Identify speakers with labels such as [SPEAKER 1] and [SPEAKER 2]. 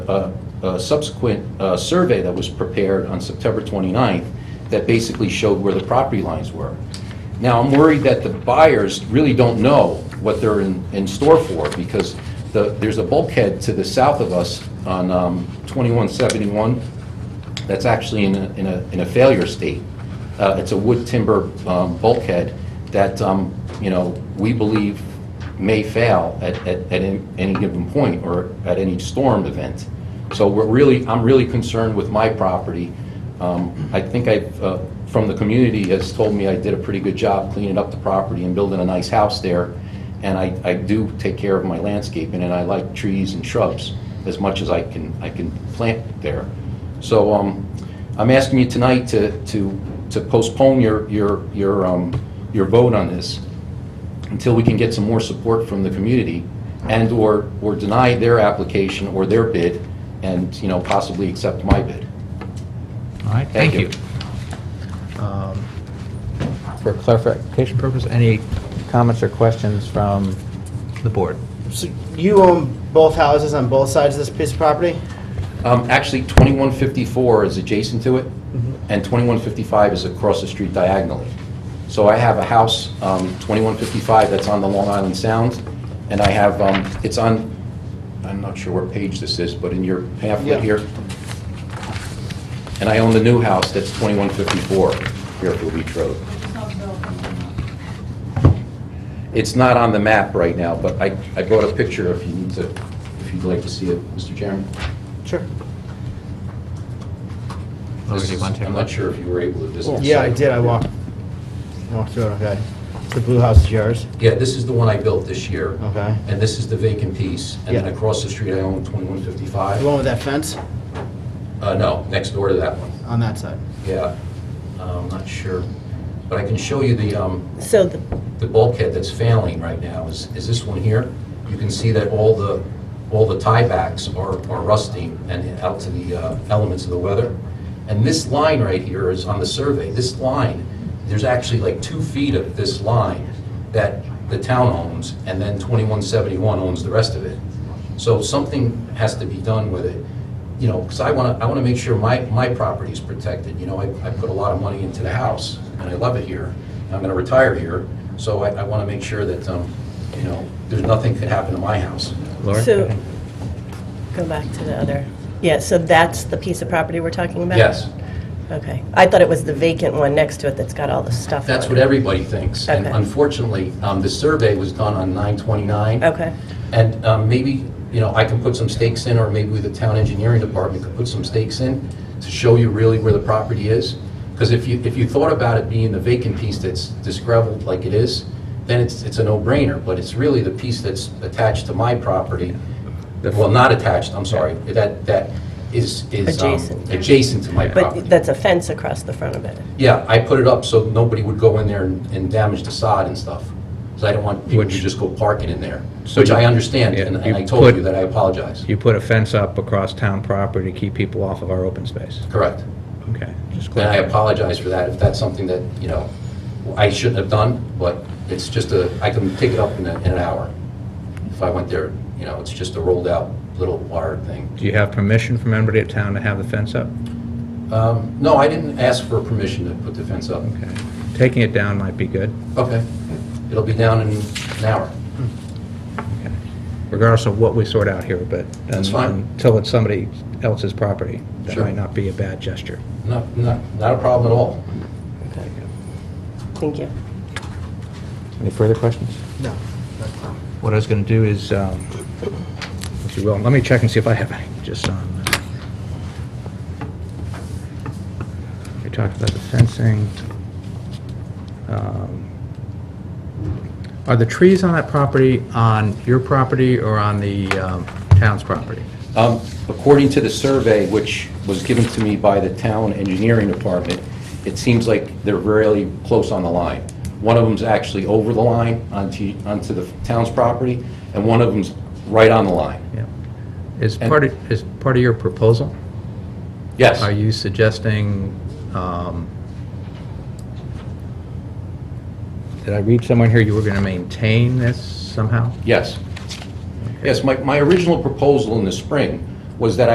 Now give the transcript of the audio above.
[SPEAKER 1] a a subsequent uh, survey that was prepared on September 29th that basically showed where the property lines were. Now, I'm worried that the buyers really don't know what they're in in store for, because the- there's a bulkhead to the south of us on um, 2171 that's actually in a- in a in a failure state. Uh, It's a wood timber um, bulkhead that, um, you know, we believe may fail at, at, at any any given point or at any storm event. So we're really, I'm really concerned with my property. Um, I think I, uh, from the community has told me I did a pretty good job cleaning up the property and building a nice house there. And I, I do take care of my landscaping and I like trees and shrubs as much as I can, I can plant there. So, um, I'm asking you tonight to, to, to postpone your, your, your, um, your vote on this until we can get some more support from the community and/or, or deny their application or their bid and, you know, possibly accept my bid.
[SPEAKER 2] All right,
[SPEAKER 1] Thank
[SPEAKER 2] thank you. Um, For clarification purpose, any comments or questions from the board?
[SPEAKER 3] So you own both houses on both sides of this piece of property?
[SPEAKER 1] Um, Actually, 2154 is adjacent to it, and 2155 is across the street diagonally. So I have a house, um, 2155, that's on the Long Island Sound, and I have, um, it's on, I'm not sure what page this is, but in your
[SPEAKER 3] Yeah.
[SPEAKER 1] pamphlet here. And I own the new house, that's 2154, Fairfield Beach Road. It's not on the map right now, but I I brought a picture if you need to, if you'd like to see it, Mr. Chairman.
[SPEAKER 3] Sure.
[SPEAKER 2] Or
[SPEAKER 1] This
[SPEAKER 2] do you
[SPEAKER 1] is-
[SPEAKER 2] want to take a
[SPEAKER 1] I'm
[SPEAKER 2] look?
[SPEAKER 1] not sure if you were able to visit. the
[SPEAKER 3] Yeah, I
[SPEAKER 1] site.
[SPEAKER 3] did, I walked, walked through it, okay. So The blue house is yours?
[SPEAKER 1] Yeah, this is the one I built this year.
[SPEAKER 3] Okay.
[SPEAKER 1] And this is the vacant piece. And then
[SPEAKER 3] Yeah.
[SPEAKER 1] across the street, I own
[SPEAKER 3] The
[SPEAKER 1] 2155.
[SPEAKER 3] one with that fence
[SPEAKER 1] Uh, no, next door to that one.
[SPEAKER 3] on that side?
[SPEAKER 1] Yeah. Uh, I'm not sure. But I can show you the, um,
[SPEAKER 4] So the,
[SPEAKER 1] the bulkhead that's failing right now is, is this one here. You can see that all the, all the tiebacks are are rusting and out to the uh, elements of the weather. And this line right here is on the survey, this line, there's actually like two feet of this line that the town owns, and then 2171 owns the rest of it. So something has to be done with it, you know, because I want to, I want to make sure my, my property is protected, you know, I, I put a lot of money into the house, and I love it here, and I'm going to retire here, so I, I want to make sure that, um, you know, there's nothing could happen to my house.
[SPEAKER 2] Laura?
[SPEAKER 4] so, go back to the other, yeah, so that's the piece of property we're talking about?
[SPEAKER 1] Yes,
[SPEAKER 4] Okay. I thought it was the vacant one next to it that's got all the stuff on it.
[SPEAKER 1] that's what everybody thinks, and
[SPEAKER 4] Okay.
[SPEAKER 1] unfortunately, um, the survey was done on 929.
[SPEAKER 4] Okay,
[SPEAKER 1] And um, maybe, you know, I can put some stakes in, or maybe the town engineering department could put some stakes in to show you really where the property is. Because if you, if you thought about it being the vacant piece that's disgreveled like it is, then it's, it's a no-brainer. But it's really the piece that's attached to my property, well, not attached, I'm sorry, that, that is, is um,
[SPEAKER 4] Adjacent.
[SPEAKER 1] adjacent to my property.
[SPEAKER 4] but that's a fence across the front of it.
[SPEAKER 1] Yeah, I put it up so nobody would go in there and and damage the sod and stuff. Because I don't want people to
[SPEAKER 2] Which-
[SPEAKER 1] just go parking in there,
[SPEAKER 2] So
[SPEAKER 1] which
[SPEAKER 2] you-
[SPEAKER 1] I understand,
[SPEAKER 2] yeah,
[SPEAKER 1] and and
[SPEAKER 2] you
[SPEAKER 1] I told you
[SPEAKER 2] put-
[SPEAKER 1] that I apologize.
[SPEAKER 2] You put a fence up across town property to keep people off of our open space.
[SPEAKER 1] Correct.
[SPEAKER 2] Okay. just
[SPEAKER 1] And I
[SPEAKER 2] clarify.
[SPEAKER 1] apologize for that, if that's something that, you know, I shouldn't have done, but it's just a, I can pick it up in a- in an hour. If I went there, you know, it's just a rolled-out little wire thing.
[SPEAKER 2] Do you have permission from anybody at town to have the fence up?
[SPEAKER 1] Um, No, I didn't ask for permission to put the fence up.
[SPEAKER 2] Okay. Taking it down might be good.
[SPEAKER 1] Okay. It'll be down in an hour.
[SPEAKER 2] Okay. Regardless of what we sort out here, but.
[SPEAKER 1] That's fine.
[SPEAKER 2] Until it's somebody else's property. That
[SPEAKER 1] Sure.
[SPEAKER 2] might not be a bad gesture.
[SPEAKER 1] Not, not, not a problem at all.
[SPEAKER 4] Thank you.
[SPEAKER 2] Any further questions?
[SPEAKER 3] No.
[SPEAKER 2] What I was going to do is, um, if you will, let me check and see if I have any, just um, on. We talked about the fencing. Um, Are the trees on that property on your property or on the um, town's property?
[SPEAKER 1] Um, According to the survey, which was given to me by the town engineering department, it seems like they're really close on the line. One of them's actually over the line onto, onto the town's property, and one of them's right on the line.
[SPEAKER 2] Yeah. Is
[SPEAKER 1] And-
[SPEAKER 2] part of, is part of your proposal,
[SPEAKER 1] Yes,
[SPEAKER 2] are you suggesting, um, did I read somewhere here you were going to maintain this somehow?
[SPEAKER 1] yes. Yes, my, my original proposal in the spring was that